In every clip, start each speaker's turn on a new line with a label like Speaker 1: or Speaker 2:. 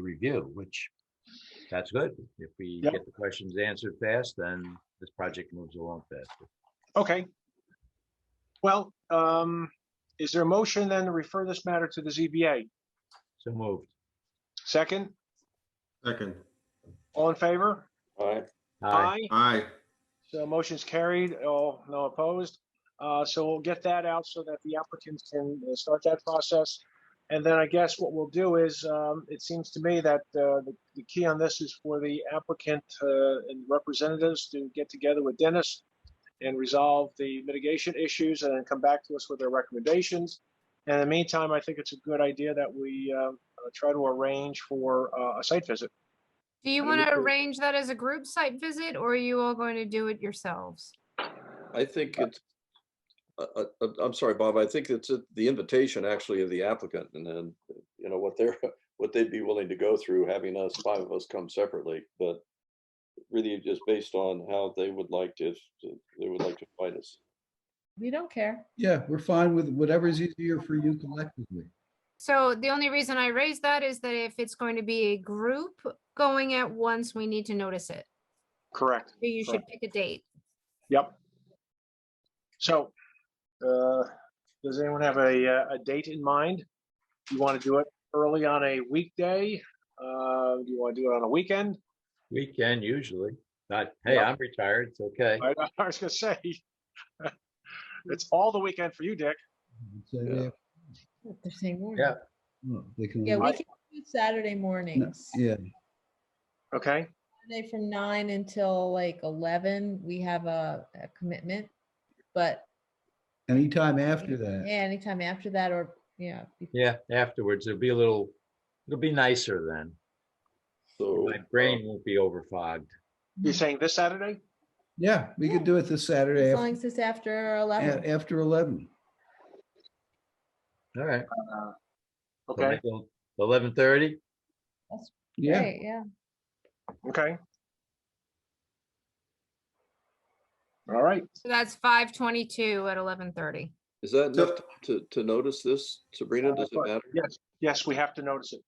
Speaker 1: review, which that's good. If we
Speaker 2: Yep.
Speaker 1: get the questions answered fast, then this project moves along faster.
Speaker 2: Okay. Well, um, is there a motion then to refer this matter to the ZBA?
Speaker 1: So moved.
Speaker 2: Second,
Speaker 3: Second.
Speaker 2: all in favor?
Speaker 4: Aye.
Speaker 1: Aye.
Speaker 3: Aye.
Speaker 2: So motion's carried, all, no opposed. Uh, so we'll get that out so that the applicants can uh, start that process. And then I guess what we'll do is, um, it seems to me that, uh, the, the key on this is for the applicant, uh, and representatives to get together with Dennis and resolve the mitigation issues and then come back to us with their recommendations. And in the meantime, I think it's a good idea that we, uh, uh, try to arrange for, uh, a site visit.
Speaker 5: Do you want to arrange that as a group site visit or are you all going to do it yourselves?
Speaker 4: I think it's, uh, uh, uh, I'm sorry, Bob, I think it's at the invitation actually of the applicant and then, you know, what they're, what they'd be willing to go through, having us, five of us come separately, but really just based on how they would like to, they would like to fight us.
Speaker 6: We don't care.
Speaker 7: Yeah, we're fine with whatever is easier for you collectively.
Speaker 5: So the only reason I raise that is that if it's going to be a group going at once, we need to notice it.
Speaker 2: Correct.
Speaker 5: So You should pick a date.
Speaker 2: Yep. So, uh, does anyone have a, uh, a date in mind? You want to do it early on a weekday? Uh, do you want to do it on a weekend?
Speaker 1: Weekend usually. Not, hey,
Speaker 2: Yeah.
Speaker 1: I'm retired. It's okay.
Speaker 2: I I was gonna say. It's all the weekend for you, Dick.
Speaker 7: I'd say
Speaker 4: Yeah.
Speaker 7: they-
Speaker 6: They're saying morning.
Speaker 1: Yeah.
Speaker 7: well, They can.
Speaker 6: Yeah,
Speaker 7: only-
Speaker 6: we can do Saturday mornings.
Speaker 7: Yeah,
Speaker 2: Okay,
Speaker 6: Saturday from nine until like eleven, we have a, a commitment. But
Speaker 7: anytime
Speaker 6: yeah,
Speaker 7: after that.
Speaker 6: anytime after that or, yeah. be-
Speaker 1: Yeah, afterwards, it'll be a little, it'll be nicer then.
Speaker 4: So. uh,
Speaker 1: My brain won't be overfogged.
Speaker 2: you're saying this Saturday?
Speaker 7: Yeah, we could do it this Saturday
Speaker 6: As
Speaker 7: af-
Speaker 6: long as it's after
Speaker 7: a-
Speaker 6: eleven.
Speaker 7: after 11.
Speaker 1: All right.
Speaker 2: Okay,
Speaker 1: Eleven thirty?
Speaker 7: Yeah,
Speaker 6: Right, Yeah.
Speaker 2: okay. All right,
Speaker 5: So that's five twenty-two at eleven thirty.
Speaker 4: Is that
Speaker 3: So-
Speaker 4: enough to, to notice this,
Speaker 1: Uh,
Speaker 4: Sabrina? Does it
Speaker 2: fine.
Speaker 4: matter?
Speaker 2: yes, yes, we have to notice it.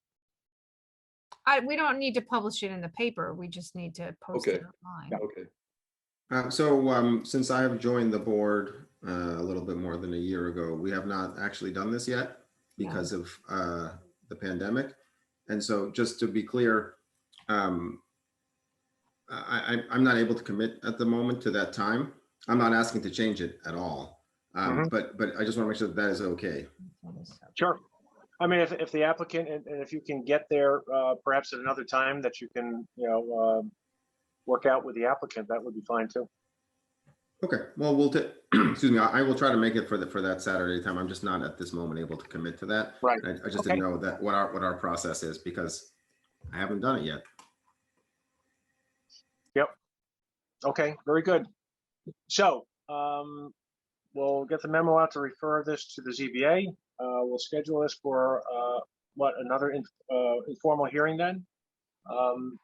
Speaker 5: I, we don't need to publish it in the paper. We just need to post it
Speaker 4: Okay.
Speaker 5: online.
Speaker 4: Okay.
Speaker 3: Uh, So um, since I have joined the board uh, a little bit more than a year ago, we have not actually done this yet
Speaker 5: No.
Speaker 3: because of uh, the pandemic. And so just to be clear, um, I, I- I'm not able to commit at the moment to that time. I'm not asking to change it at all. Um,
Speaker 2: Mhm.
Speaker 3: But, but I just want to make sure that that is okay.
Speaker 2: Sure. I mean, if, if the applicant, and, and if you can get there, uh, perhaps at another time that you can, you know, um, work out with the applicant, that would be fine too.
Speaker 3: Okay, well, we'll, ta- excuse me, I I will try to make it for the, for that Saturday time. I'm just not at this moment able to commit to that.
Speaker 2: Right.
Speaker 3: I I just
Speaker 2: Okay.
Speaker 3: didn't know that, what our, what our process is because I haven't done it yet.
Speaker 2: Okay, very good. So, um, we'll get the memo out to refer this to the ZBA. Uh, we'll schedule this for, uh, what, another in- uh, informal hearing then? Um,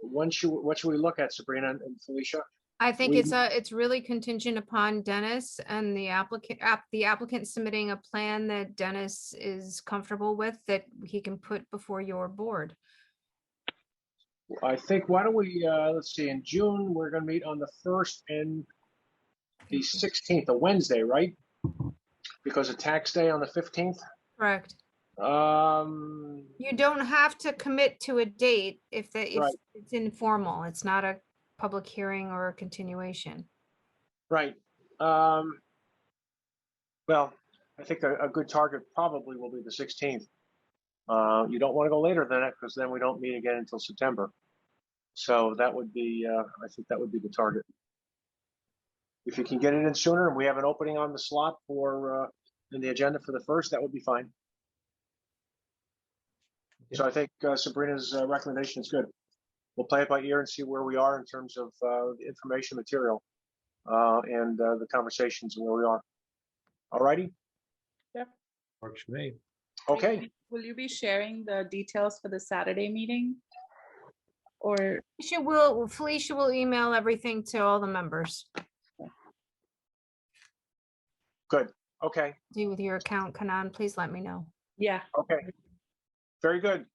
Speaker 2: when should, what should we look at Sabrina and Felicia?
Speaker 5: I think
Speaker 3: We-
Speaker 5: it's a, it's really contingent upon Dennis and the applicant, app, the applicant submitting a plan that Dennis is comfortable with that he can put before your board.
Speaker 2: I think, why don't we, uh, let's see, in June, we're gonna meet on the first and the sixteenth, a Wednesday, right? Because of tax day on the fifteenth.
Speaker 5: Correct.
Speaker 2: Um,
Speaker 5: You don't have to commit to a date if the, if
Speaker 2: Right.
Speaker 5: it's informal. It's not a public hearing or a continuation.
Speaker 2: right, um, well, I think a, a good target probably will be the sixteenth. Uh, you don't wanna go later than that, because then we don't meet again until September. So that would be, uh, I think that would be the target. If you can get it in sooner, and we have an opening on the slot for, uh, in the agenda for the first, that would be fine. So I think uh, Sabrina's uh, recommendation is good. We'll play it by ear and see where we are in terms of uh, the information material uh, and uh, the conversations where we are. All righty,
Speaker 1: Works for me.
Speaker 8: Will you
Speaker 2: okay,
Speaker 8: be- Will you be sharing the details for the Saturday meeting? Or,
Speaker 5: She will, Felicia will email everything to all the members,
Speaker 2: okay,
Speaker 5: Do with your account, Kanan, please let me know.
Speaker 8: yeah,
Speaker 2: okay. Very good.